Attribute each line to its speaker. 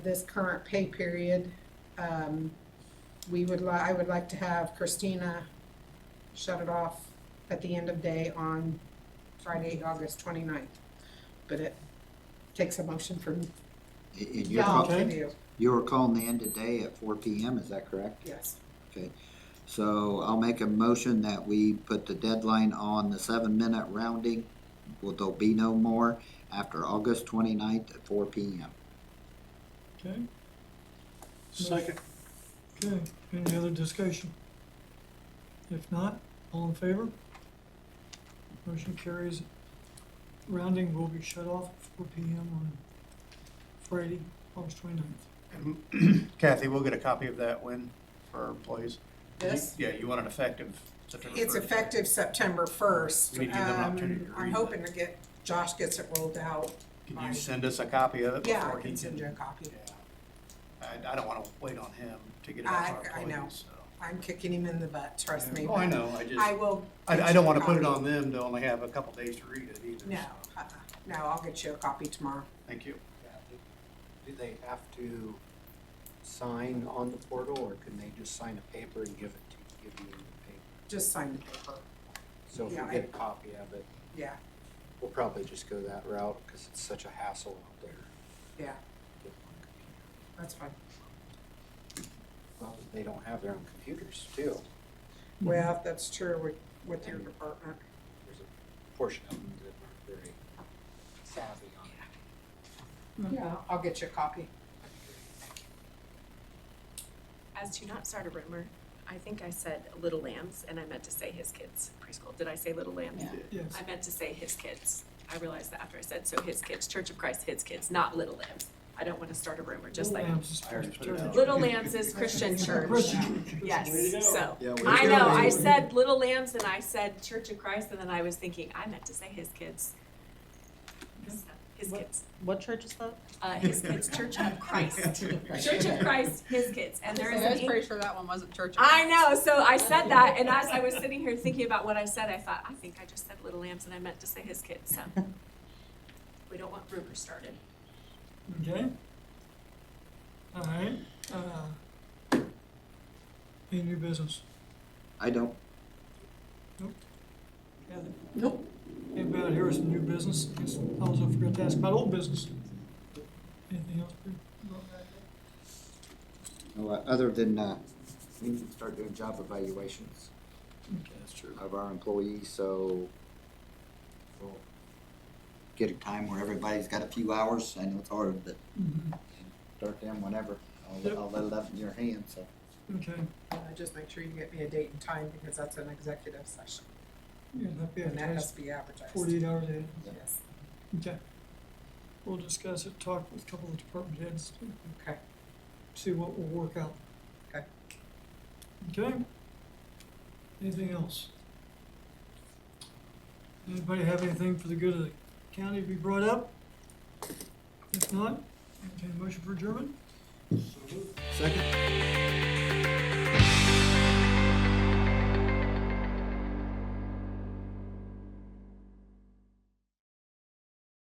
Speaker 1: this current pay period. Um, we would li- I would like to have Christina shut it off at the end of day on Friday, August twenty-ninth. But it takes a motion from
Speaker 2: And and you're,
Speaker 1: y'all
Speaker 2: call-
Speaker 1: to
Speaker 3: Okay.
Speaker 1: do,
Speaker 2: you're calling the end of day at four P M, is that correct?
Speaker 1: yes.
Speaker 2: So I'll make a motion that we put the deadline on the seven-minute rounding. Will there be no more after August twenty-ninth at four P M?
Speaker 3: Okay. Second. Okay, any other discussion? If not, all in favor? Motion carries. Rounding will be shut off at four P M on Friday, August twenty-ninth.
Speaker 4: Kathy, we'll get a copy of that when for our employees.
Speaker 1: This,
Speaker 4: Yeah, you want an effective September
Speaker 1: it's
Speaker 4: first.
Speaker 1: effective September first. Um,
Speaker 4: We need to give them an opportunity to
Speaker 1: I'm
Speaker 4: read
Speaker 1: hoping to get, Josh gets it rolled out.
Speaker 4: Can you send us a copy of it?
Speaker 1: Yeah,
Speaker 4: before
Speaker 1: I
Speaker 4: he
Speaker 1: can send you a copy.
Speaker 4: Yeah. I, I don't wanna wait on him to get it out to
Speaker 1: I-
Speaker 4: our
Speaker 1: I know.
Speaker 4: employees, so.
Speaker 1: I'm kicking him in the butt, trust me.
Speaker 4: Oh, I
Speaker 1: but
Speaker 4: know, I just,
Speaker 1: I will.
Speaker 4: I,
Speaker 1: get
Speaker 4: I
Speaker 1: you
Speaker 4: don't
Speaker 1: a
Speaker 4: wanna put it
Speaker 1: copy.
Speaker 4: on them to only have a couple days to read it either,
Speaker 1: No,
Speaker 4: so,
Speaker 1: uh-uh. no, I'll get you a copy tomorrow.
Speaker 4: thank you.
Speaker 5: Yeah, do- Do they have to sign on the portal, or can they just sign a paper and give it to, give you the paper?
Speaker 1: Just sign the paper,
Speaker 5: So if
Speaker 1: Yeah,
Speaker 5: you
Speaker 1: I-
Speaker 5: get a copy of it,
Speaker 1: yeah,
Speaker 5: we'll probably just go that route, because it's such a hassle out there.
Speaker 1: yeah,
Speaker 5: Get one computer.
Speaker 1: that's fine.
Speaker 5: Well, They don't have their own computers, too.
Speaker 1: Well, that's true with, with your department.
Speaker 5: There's a portion of them that aren't very savvy on it.
Speaker 1: Yeah, I'll get you a copy.
Speaker 5: That'd be great. Thank you.
Speaker 6: As to not start a rumor, I think I said little lambs and I meant to say his kids preschool. Did I say little lambs?
Speaker 3: Yes.
Speaker 6: I meant to say his kids. I realized that after I said, so his kids, Church of Christ, his kids, not little lambs. I don't want to start a rumor, just like,
Speaker 3: Little Lambs is supposed to
Speaker 4: I already put it
Speaker 3: turn
Speaker 4: out.
Speaker 6: little lambs is Christian church.
Speaker 3: Christian church.
Speaker 6: Yes, so.
Speaker 5: Yeah, we-
Speaker 6: I know, I said little lambs and I said Church of Christ and then I was thinking, I meant to say his kids. So, His kids,
Speaker 7: What church is that?
Speaker 6: uh, his kids, Church of Christ. Church of Christ, his kids. And there is an English
Speaker 7: sure that one wasn't church.
Speaker 6: I know. So I said that, and as I was sitting here thinking about what I said, I thought, I think I just said little lambs, and I meant to say his kids. So we don't want rumors started.
Speaker 3: Okay. All right, uh, any new business?
Speaker 2: I don't,
Speaker 3: Nope. Anybody out here is new business? Guess I also forgot to ask about old business. Anything else? Peter?
Speaker 2: no, uh, other than, uh, we need to start doing job evaluations
Speaker 4: That's true.
Speaker 2: of our employees, so we'll get a time where everybody's got a few hours. I know it's hard, but
Speaker 3: Mhm.
Speaker 2: start them whenever.
Speaker 3: Yep.
Speaker 2: I'll, I'll let it up in your hands, so.
Speaker 3: Okay,
Speaker 1: Uh, just make sure you get me a date and time because that's an executive session
Speaker 3: yeah, that'd be
Speaker 1: and that has
Speaker 3: advertised
Speaker 1: to be advertised.
Speaker 3: forty-eight hours ahead.
Speaker 1: Yes,
Speaker 3: Okay. We'll discuss it, talk with a couple of department heads,
Speaker 1: okay.
Speaker 3: see what will work out.
Speaker 1: Okay.
Speaker 3: Okay? Anything else? Anybody have anything for the good of the county to be brought up? If not, entertain a motion for adjournment?